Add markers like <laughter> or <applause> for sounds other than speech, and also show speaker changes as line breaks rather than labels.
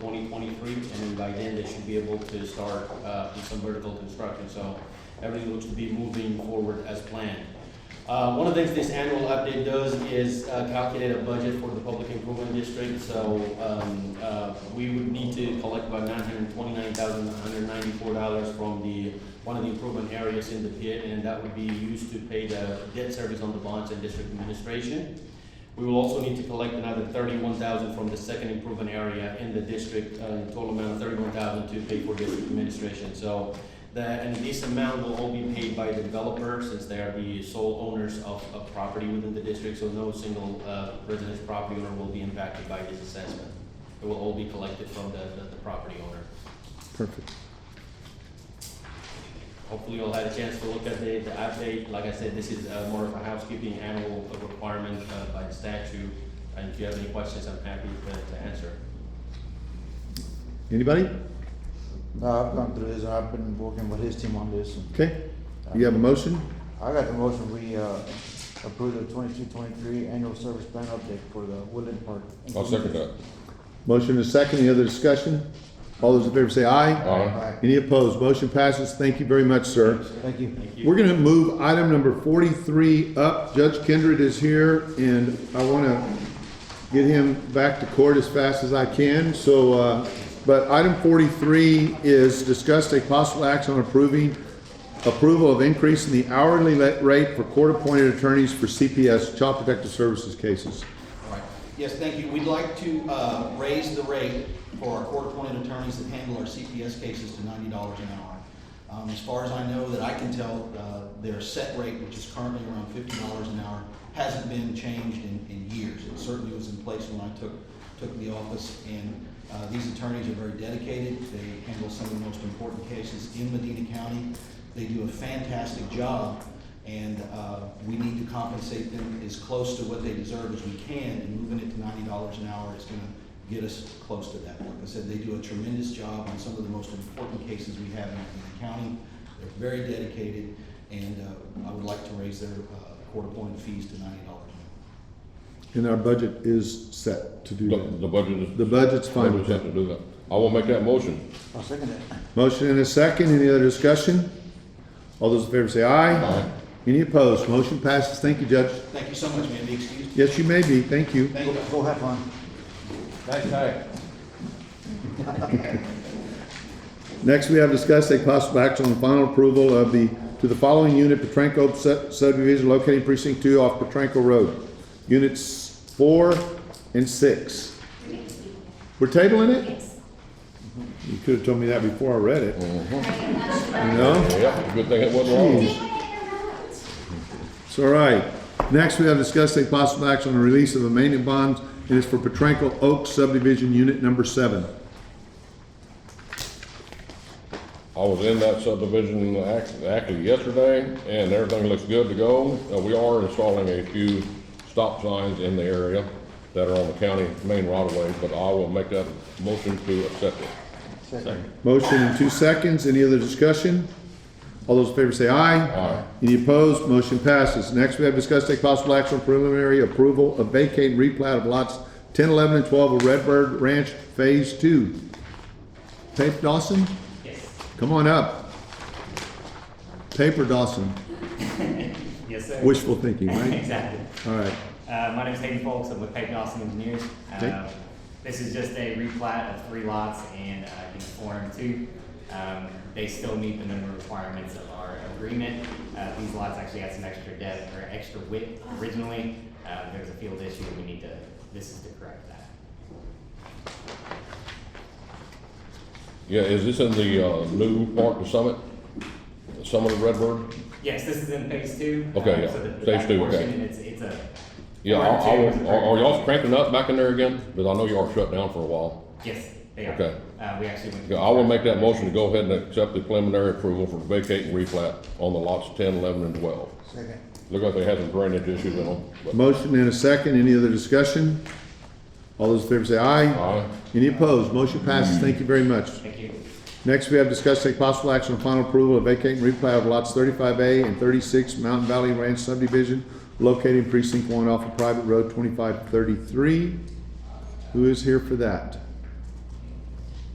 twenty twenty-three, and then by then they should be able to start, uh, with some vertical construction, so everything looks to be moving forward as planned. Uh, one of the things this annual update does is uh, calculate a budget for the public improvement district, so, um, uh, we would need to collect about nine hundred twenty-nine thousand, one hundred ninety-four dollars from the, one of the improvement areas in the pit, and that would be used to pay the debt service on the bonds and district administration. We will also need to collect another thirty-one thousand from the second improvement area in the district, uh, in total amount of thirty-one thousand to pay for district administration. So the, and this amount will all be paid by the developer since they are the sole owners of, of property within the district. So no single, uh, residence property owner will be impacted by this assessment. It will all be collected from the, the, the property owner.
Perfect.
Hopefully you'll have a chance to look at the, the update. Like I said, this is uh, more of a housekeeping annual requirement uh, by the statute. And if you have any questions, I'm happy to, to answer.
Anybody?
No, I've gone through this, and I've been working with his team on this.
Okay. You have a motion?
I got the motion, we, uh, approve the twenty-two, twenty-three annual service plan update for the Woodland Park.
I'll second uh, that.
Motion is second. Any other discussion? All those in favor say aye.
Aye.
Alright,
Any opposed? Motion passes. Thank you very much, sir.
thank you.
Thank you.
We're gonna move item number forty-three up. Judge Kindred is here and I wanna get him back to court as fast as I can, so, uh, but item forty-three is discuss a possible action on approving approval of increase in the hourly la- rate for court-appointed attorneys for CPS, Child Protective Services cases.
All right. Yes, thank you. We'd like to uh, raise the rate for our court-appointed attorneys that handle our CPS cases to ninety dollars an hour. Um, As far as I know, that I can tell, uh, their set rate, which is currently around fifty dollars an hour, hasn't been changed in, in years. It certainly was in place when I took, took the office, and uh, these attorneys are very dedicated. They handle some of the most important cases in Medina County. They do a fantastic job, and uh, we need to compensate them as close to what they deserve as we can, and moving it to ninety dollars an hour is gonna get us close to that. Like I said, they do a tremendous job on some of the most important cases we have in the county. They're very dedicated, and uh, I would like to raise their uh, court-appointed fees to ninety dollars an hour.
And our budget is set to do
The,
that.
the budget is.
The budget's fine with
budget's set
that.
To do that. I will make that motion.
I'll second that.
Motion and a second. Any other discussion? All those in favor say aye.
Aye.
Any opposed? Motion passes. Thank you, Judge.
Thank you so much, ma'am. Be excused.
Yes, you may be. Thank you.
Thank
Go,
you.
go have fun.
Next, we have discussed a possible action on final approval of the, to the following unit, Petranco sub- subdivision located in precinct two off Petranco Road. Units four and six. We're tabling it?
Yes.
You could have told me that before I read it. No?
Yeah, good thing it wasn't wrong.
It's all right. Next, we have discussed a possible action on the release of a maintenance bond, and it's for Petranco Oaks subdivision unit number seven.
I was in that subdivision act- actually yesterday, and everything looks good to go. Uh, We are installing a few stop signs in the area that are on the county main roadway, but I will make that motion to accept it.
Second.
Motion in two seconds. Any other discussion? All those in favor say aye.
Aye.
Any opposed? Motion passes. Next, we have discussed take possible action on preliminary approval of vacate and replat of lots 10, 11, and 12 of Redbird Ranch Phase 2. Paper Dawson?
Yes,
Come on up. Paper Dawson.
yes, sir. <laughs>
Wishful thinking, right?
Exactly.
All right.
Uh, my name's Hayden Folks, I'm with Peyton Austin Engineers.
Okay.
Um, This is just a replat of three lots and, uh, unit four and two. Um, they still meet the minimum requirements of our agreement. Uh, these lots actually had some extra depth or extra width originally. Uh, there's a field issue, we need to, this is to correct that.
Yeah, is this in the uh, new park, the summit? The Summit of Redbird?
Yes, this is in phase two.
Okay,
um,
yeah.
so the- the
Phase
back
two,
portion,
okay.
It's, it's a.
Yeah,
one
I,
and
I
two is
will,
a
are, are
correct-
y'all cranking up back in there again? Because I know y'all are shut down for a while.
Yes, they are.
Okay.
Uh, we actually went.
Yeah, I will make that motion to go ahead and accept the preliminary approval for vacate and replat on the lots 10, 11, and twelve.
Second.
Look like they had some drainage issues in them, but,
Motion and a second. Any other discussion? All those in favor say aye.
aye.
Any opposed? Motion passes. Thank you very much.
Thank you.
Next, we have discussed take possible action on final approval of vacate and replat of lots thirty-five A and thirty-six Mountain Valley Ranch subdivision located in precinct one off of private road twenty-five thirty-three. Who is here for that?